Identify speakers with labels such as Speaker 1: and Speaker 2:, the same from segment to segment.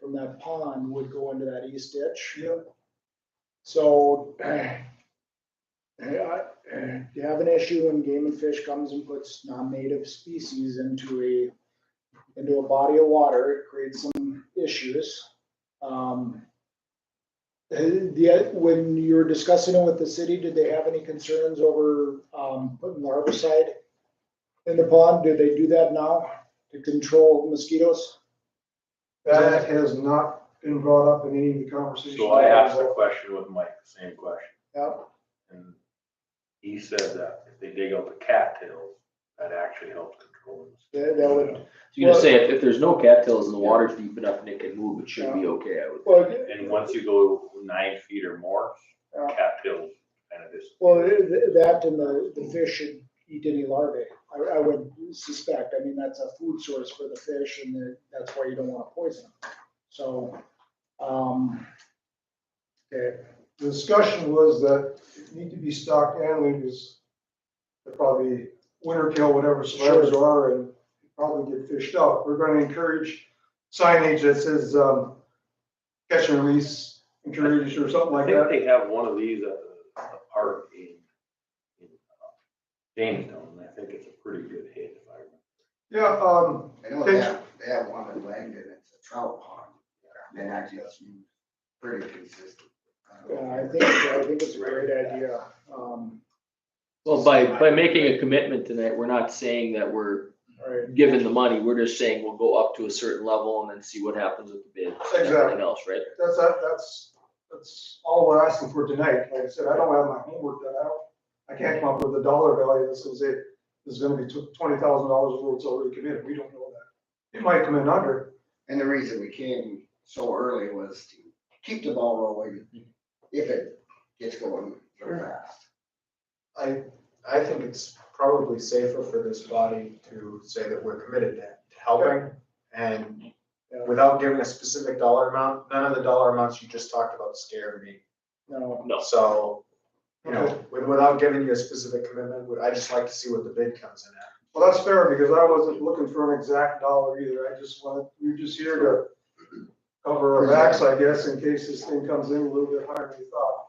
Speaker 1: from that pond would go into that east ditch.
Speaker 2: Yep.
Speaker 1: So, eh, eh, I- eh, you have an issue when Game and Fish comes and puts non-native species into a, into a body of water, it creates some issues. Um, eh, The, when you were discussing it with the city, did they have any concerns over, um, putting larvicide in the pond? Do they do that now to control mosquitoes?
Speaker 2: That has not been brought up in any of the conversations.
Speaker 3: So I asked a question with Mike, the same question,
Speaker 1: Yep.
Speaker 3: and he said that if they dig out the cattails, that actually helps control them.
Speaker 1: That, that would,
Speaker 4: You're gonna say if, if there's no cattails and the water's deep enough and it can move, it should be okay, I would.
Speaker 1: well,
Speaker 3: And once you go nine feet or more,
Speaker 1: Yeah.
Speaker 3: cattails kind of just.
Speaker 1: well, th- th- that and the, the fish should eat any larvae, I, I would suspect, I mean, that's a food source for the fish and that- that's why you don't wanna poison them. So, um, okay,
Speaker 2: The discussion was that it need to be stocked annually because they're probably winter kill whatever survivors are and probably get fished out. We're gonna encourage signage that says, um, catch and release, encourage or something
Speaker 3: I
Speaker 2: like
Speaker 3: think
Speaker 2: that.
Speaker 3: they have one of these at the the park in, in uh, Jamestown, and I think it's a pretty good hit if I
Speaker 2: Yeah,
Speaker 3: remember.
Speaker 2: um,
Speaker 5: I know they have, they have one in Langdon, it's a trout pond, and that gets you pretty consistent.
Speaker 1: yeah, I think, I think it's a great idea, um,
Speaker 4: Well, by, by making a commitment tonight, we're not saying that we're
Speaker 1: alright,
Speaker 4: given the money, we're just saying we'll go up to a certain level and then see what happens with the bid. and Everything
Speaker 2: Exactly.
Speaker 4: else, right?
Speaker 2: that's, that- that's, that's all we're asking for tonight. Like I said, I don't have my homework done. I don't, I can't come up with a dollar value that says, hey, this is gonna be twenty thousand dollars over it's already committed. We don't know that. It might come in under.
Speaker 5: And the reason we came so early was to keep the ball rolling if it gets going so fast.
Speaker 6: I, I think it's probably safer for this body to say that we're committed to to helping. And without giving a specific dollar amount, none of the dollar amounts you just talked about scared me.
Speaker 1: no,
Speaker 4: No.
Speaker 6: So, you know, with- without giving you a specific commitment, would- I'd just like to see what the bid comes in at.
Speaker 2: Well, that's fair because I wasn't looking for an exact dollar either. I just wanted, we we're just here to cover our backs, I guess, in case this thing comes in a little bit higher than we thought.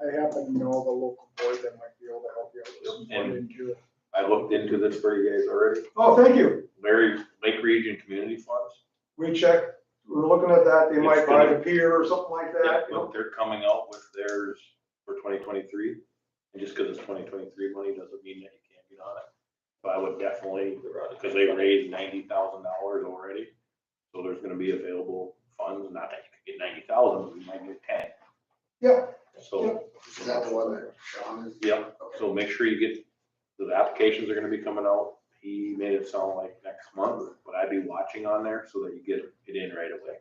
Speaker 1: I happen to know of a local board that might be able to help you out with some
Speaker 3: And-
Speaker 1: funding too.
Speaker 3: I looked into this for you guys already,
Speaker 2: Oh, thank you.
Speaker 3: Larry, Lake Region Community Funds.
Speaker 2: We checked, we're looking at that. They might
Speaker 3: It's
Speaker 2: buy
Speaker 3: gonna-
Speaker 2: the pier or something like
Speaker 3: Yeah,
Speaker 2: that. you know?
Speaker 3: but they're coming out with theirs for twenty twenty-three, and just because it's twenty twenty-three money doesn't mean that you can't get on it. But I would definitely, because they raised ninety thousand dollars already, so there's gonna be available funds, not that you could get ninety thousand, you might get ten.
Speaker 2: Yeah.
Speaker 3: So,
Speaker 5: Is that the one that Sean is?
Speaker 3: yeah, so make sure you get, the applications are gonna be coming out, he made it sound like next month, but I'd be watching on there so that you get it in right away.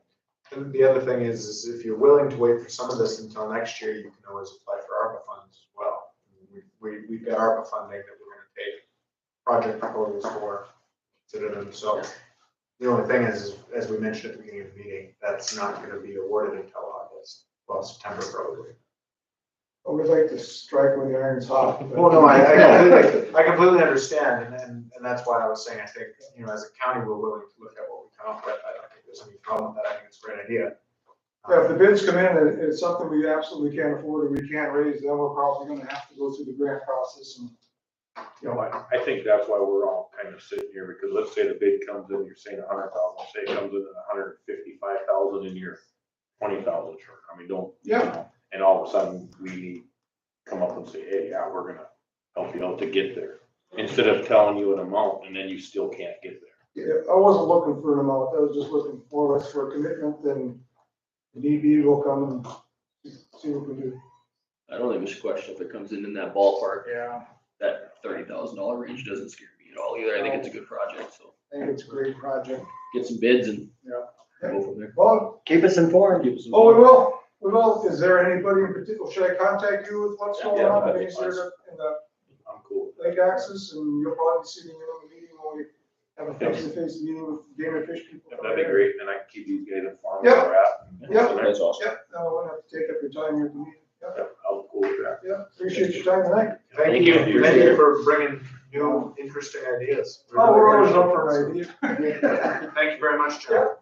Speaker 6: And the other thing is, is if you're willing to wait for some of this until next year, you can always apply for ARPA funds as well. We, we, we've got ARPA funding that we're gonna take project proposals for, consider them, so. The only thing is, is as we mentioned at the beginning of the meeting, that's not gonna be awarded until August, well, September probably.
Speaker 2: I would like to strike when the iron's hot. but-
Speaker 6: Well, no, I, I completely, I completely understand, and, and, and that's why I was saying, I think, you know, as a county, we're willing to look at what we come up with, I don't think there's any problem with that, I think it's a great idea.
Speaker 2: Yeah, If the bids come in and it's something we absolutely can't afford or we can't raise, then we're probably gonna have to go through the grant process and
Speaker 3: You know, I, I think that's why we're all kind of sitting here, because let's say the bid comes in, you're saying a hundred thousand, say it comes in at a hundred and fifty-five thousand and you're twenty thousand short, I mean, don't. you
Speaker 2: Yeah.
Speaker 3: know, And all of a sudden, we come up and say, hey, yeah, we're gonna help you out to get there, instead of telling you an amount and then you still can't get there.
Speaker 2: Yeah, I wasn't looking for an amount, I was just looking more or less for a commitment, then the DB will come and see what we do.
Speaker 4: I don't think we should question if it comes in in that ballpark,
Speaker 1: Yeah.
Speaker 4: that thirty thousand dollar range doesn't scare me at all either. I think it's a good project, so
Speaker 1: I think it's a great project.
Speaker 4: get some bids and
Speaker 1: Yeah.
Speaker 4: go from there.
Speaker 2: Well,
Speaker 7: Keep us informed.
Speaker 4: Give us some-
Speaker 2: oh, we will, we will, is there anybody in particular, should I contact you with what's going
Speaker 3: Yeah,
Speaker 2: on,
Speaker 3: that'd be
Speaker 2: Is there in the
Speaker 3: I'm cool.
Speaker 2: lake access, and you'll probably see me in the meeting when we have a face-to-face meeting with game and fish people.
Speaker 3: If That'd be great, then I can keep these guys informed
Speaker 2: Yeah.
Speaker 3: where we're at. and-
Speaker 2: Yeah.
Speaker 4: That's awesome.
Speaker 2: Yep, no, I won't have to take up your time here at the meeting, yep,
Speaker 3: Yeah, I'm cool with that.
Speaker 2: yep, appreciate your time tonight.
Speaker 6: Thank
Speaker 4: Thank
Speaker 6: you,
Speaker 4: you.
Speaker 6: thank you for bringing new, interesting ideas.
Speaker 4: Oh,
Speaker 2: Oh, we're always up for an idea.
Speaker 6: Thank you very much, John.